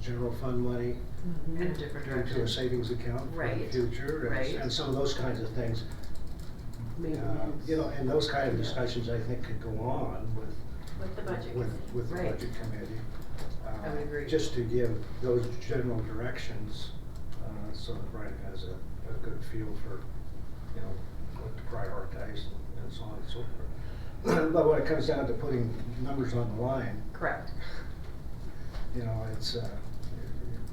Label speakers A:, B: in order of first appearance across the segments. A: general fund money
B: in a different
A: into
B: direction.
A: a savings account for the
B: Right.
A: future. and-
B: Right.
A: And some of those kinds of things. Uh, You know, and those kind of discussions, I think, could go on with
C: With the budget
A: with,
C: committee.
A: with the
B: Right.
A: budget committee.
B: I would
A: uh,
B: agree.
A: Just to give those general directions, uh, so that Brian has a, a good feel for, you know, what to prioritize and so on and so forth. But when it comes down to putting numbers on the line,
B: Correct.
A: you know, it's, uh,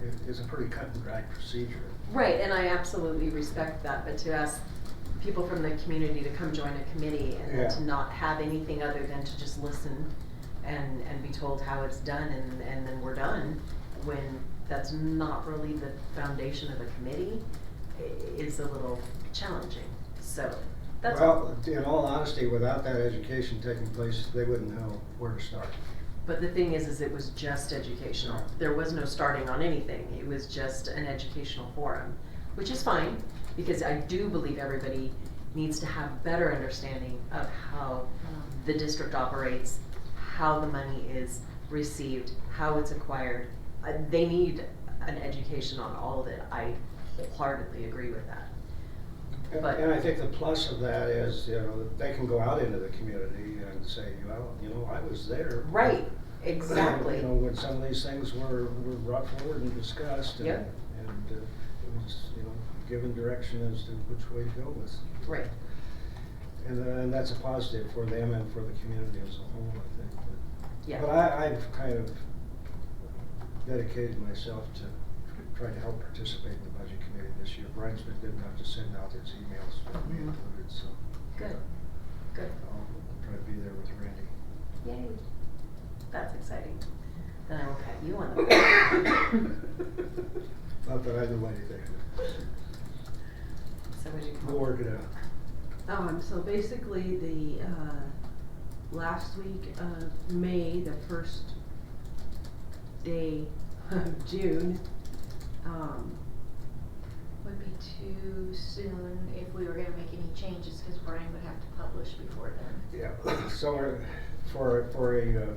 A: it, it- it's a pretty cut and dried procedure.
B: Right, and I absolutely respect that, but to ask people from the community to come join a committee and then
A: Yeah.
B: to not have anything other than to just listen and, and be told how it's done and, and then we're done, when that's not really the foundation of a committee, i- is a little challenging, so that's.
A: Well, in all honesty, without that education taking place, they wouldn't know where to start.
B: But the thing is, is it was just educational. There was no starting on anything. It was just an educational forum, which is fine because I do believe everybody needs to have better understanding of how the district operates, how the money is received, how it's acquired. Uh, they need an education on all of it. I wholeheartedly agree with that.
A: And
B: But-
A: and I think the plus of that is, you know, they can go out into the community and say, well, you know, I was there.
B: Right, exactly.
A: You know, when some of these things were, were brought forward and discussed. and-
B: Yep.
A: And uh, it was, you know, given direction as to which way to go with.
B: Right.
A: And, uh, and that's a positive for them and for the community as a whole, I think. but-
B: Yeah.
A: But I, I've kind of dedicated myself to trying to help participate in the budget committee this year. Brian's been good enough to send out his emails to me
B: Mhm.
A: included, so.
B: Good. Good.
A: I'll try to be there with Randy.
B: Yay. That's exciting. Then I will pat you on the back.
A: Not that I know anything.
B: So would you come?
A: We'll work it out.
C: Um, so basically, the, uh, last week of May, the first day of June, um,
D: Would be too soon if we were gonna make any changes, cause Brian would have to publish before then.
A: Yeah, so uh, for, for a, uh,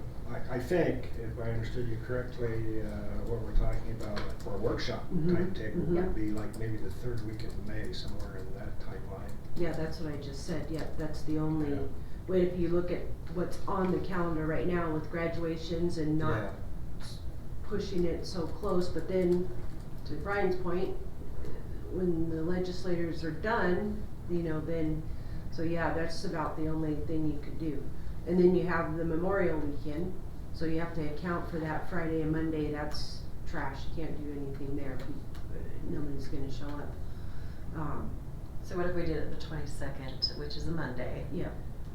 A: I, I think, if I understood you correctly, uh, what we're talking about for a workshop
C: Mhm,
A: timetable would
C: mhm.
A: be like maybe the third week of May, somewhere in that timeline.
C: yeah, that's what I just said, yeah, that's the only,
A: Yeah.
C: but if you look at what's on the calendar right now with graduations and not pushing it so close, but then, to Brian's point, when the legislators are done, you know, then, so yeah, that's about the only thing you could do. And then you have the Memorial Weekend, so you have to account for that Friday and Monday, that's trash, you can't do anything there, uh, nobody's gonna show up. Um,
B: So what if we did it the twenty-second, which is a Monday,
C: yeah.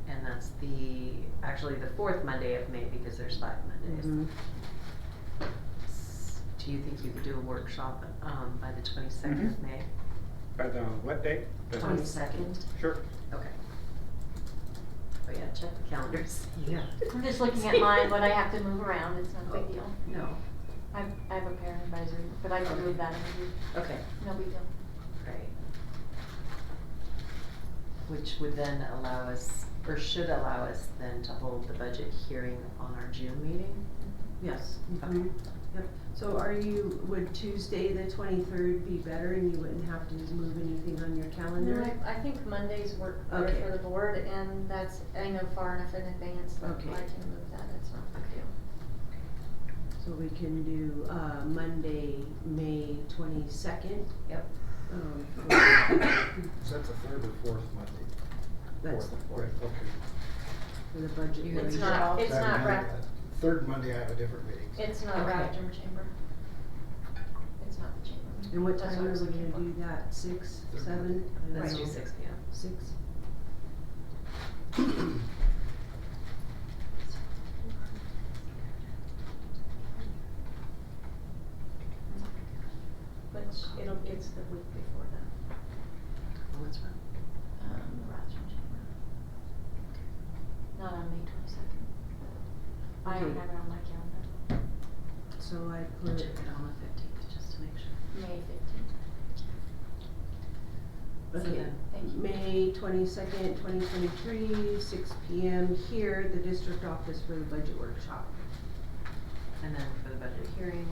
B: and that's the, actually the fourth Monday of May because there's five Mondays.
C: mhm.
B: S- Do you think you could do a workshop, um, by the twenty-second of May?
E: By
A: uh,
E: the, what date? The-
B: Twenty-second,
E: Sure.
B: okay. Oh yeah, check the calendars.
C: Yeah.
D: I'm just looking at mine, but I have to move around, it's no big deal.
B: Oh, No,
D: I, I have a parent advisory, but I can move that, in.
B: okay,
D: no big deal.
B: great. Which would then allow us, or should allow us then to hold the budget hearing on our June meeting?
C: Yes.
B: Okay.
C: mhm, Yep, so are you, would Tuesday, the twenty-third be better and you wouldn't have to move anything on your calendar?
D: No, I, I think Mondays work better
C: Okay.
D: for the board, and that's, I know far enough in advance that I
C: Okay.
D: can move that, it's not a big deal.
C: So we can do, uh, Monday, May twenty-second.
B: Yep.
C: Um,
A: Is that the third or fourth Monday?
C: that's the fourth,
A: right, Okay.
C: for the budget.
B: You already
D: It's
C: hearing.
D: not,
B: dropped
D: it's
A: That
D: not
A: Monday-
D: wrapped,
A: Third Monday, I have a different meeting.
D: it's not
B: Okay.
D: wrapped in chamber. It's not the chamber.
C: And what
D: That's
C: time
D: I
C: are
D: was
C: we
D: looking
C: gonna
D: for.
C: do that, six, seven? I
B: Let's
C: don't
B: do
C: know.
B: six P M.
C: Six?
D: Mm-hmm. Which, it'll, it's the week before that,
B: What's wrong?
D: um, the Rochester Chamber. Not on May twenty-second. I don't
C: Okay.
D: have it on my calendar.
C: So I
B: Check it
C: put,
B: on the fifteenth, just to make sure.
D: May fifteenth,
B: So
C: okay,
B: then-
D: thank you.
C: May twenty-second, twenty twenty-three, six P M here, at the district office for the budget workshop.
B: And then for the budget hearing,